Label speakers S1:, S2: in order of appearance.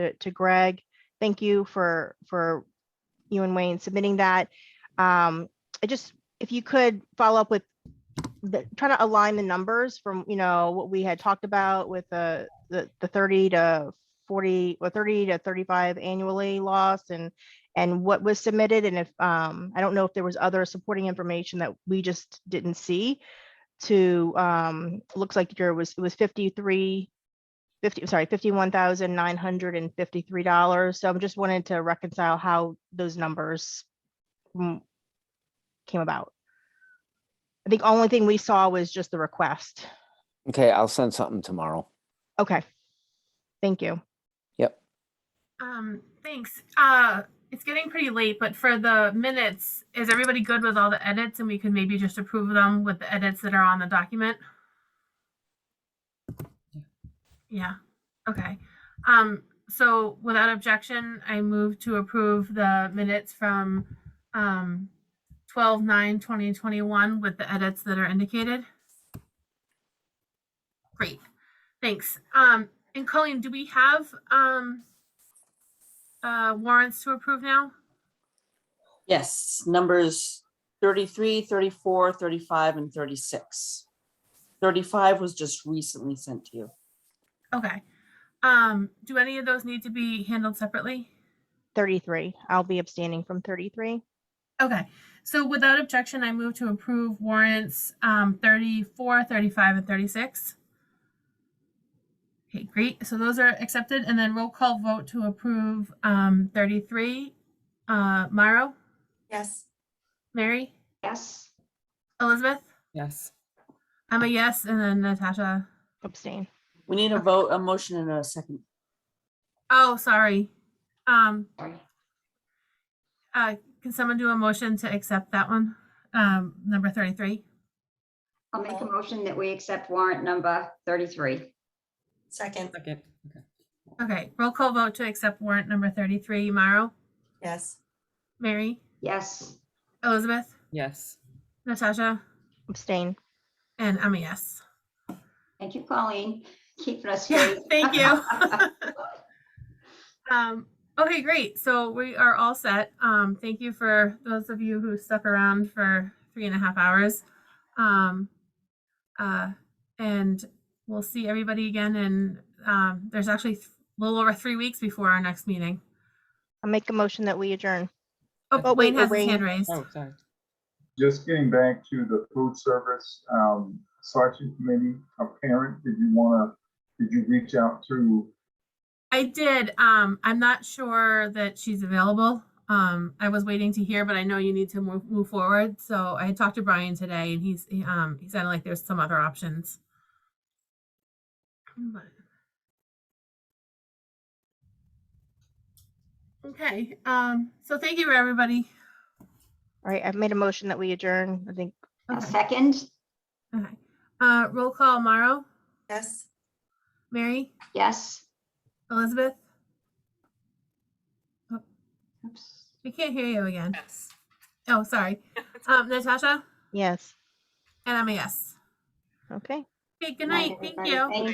S1: to, to Greg. Thank you for, for you and Wayne submitting that. Um, I just, if you could follow up with the, try to align the numbers from, you know, what we had talked about with the, the, the thirty to forty, or thirty to thirty-five annually loss and, and what was submitted, and if, um, I don't know if there was other supporting information that we just didn't see to, um, looks like your was, it was fifty-three 50, sorry, $51,953. So I'm just wanted to reconcile how those numbers mm, came about. I think only thing we saw was just the request.
S2: Okay, I'll send something tomorrow.
S1: Okay. Thank you.
S3: Um, thanks. Uh, it's getting pretty late, but for the minutes, is everybody good with all the edits and we can maybe just approve them with the edits that are on the document? Yeah, okay. Um, so without objection, I move to approve the minutes from, um, twelve nine twenty twenty-one with the edits that are indicated. Great, thanks. Um, and Colleen, do we have, um, uh, warrants to approve now?
S4: Yes, numbers 33, 34, 35, and thirty-six. Thirty-five was just recently sent to you.
S3: Okay. Um, do any of those need to be handled separately?
S1: 33. I'll be abstaining from 33.
S3: Okay. So without objection, I move to approve warrants, um, 34, 35, and thirty-six. Okay, great. So those are accepted and then roll call vote to approve, um, thirty-three. Uh, Mauro,
S5: Yes.
S3: Mary,
S5: Yes.
S3: Elizabeth,
S6: Yes.
S3: I'm a yes, and then Natasha.
S1: Abstain.
S4: We need a vote, a motion and a second.
S3: Oh, sorry. Um,
S5: Sorry.
S3: uh, can someone do a motion to accept that one? Um, number thirty-three?
S5: I'll make a motion that we accept warrant number 33.
S7: Second,
S6: Second. Okay.
S3: Okay, roll call vote to accept warrant number thirty-three, Mauro,
S7: yes.
S3: Mary,
S5: Yes.
S3: Elizabeth,
S6: Yes.
S3: Natasha,
S1: Abstain.
S3: and I'm a yes.
S5: Thank you, Colleen, keeping us
S3: Yeah,
S5: straight.
S3: thank you. Um, okay, great. So we are all set. Um, thank you for those of you who stuck around for three and a half hours. Um, uh, and we'll see everybody again. And um, there's actually th- a little over three weeks before our next meeting.
S1: I'll make a motion that we adjourn.
S3: Oh,
S1: Oh, wait,
S3: Wayne
S1: oh,
S3: has his
S1: Wayne.
S3: hand raised.
S6: Oh, sorry.
S8: Just getting back to the food service, um, selection committee, a parent, did you wanna, did you reach out to?
S3: I did. Um, I'm not sure that she's available. Um, I was waiting to hear, but I know you need to move, move forward. So I talked to Brian today and he's, he, um, he sounded like there's some other options. But- Okay, um, so thank you, everybody.
S1: All right. I've made a motion that we adjourn. I think
S5: A
S3: Okay,
S5: second?
S3: okay. Uh, roll call, Mauro,
S7: Yes.
S3: Mary,
S5: Yes.
S3: Elizabeth,
S5: Oops.
S3: we can't hear you again.
S6: Yes.
S3: Oh, sorry. Um, Natasha,
S1: yes.
S3: and I'm a yes.
S1: Okay.
S3: Okay, good night. Thank
S5: everybody.
S3: you.
S5: Thank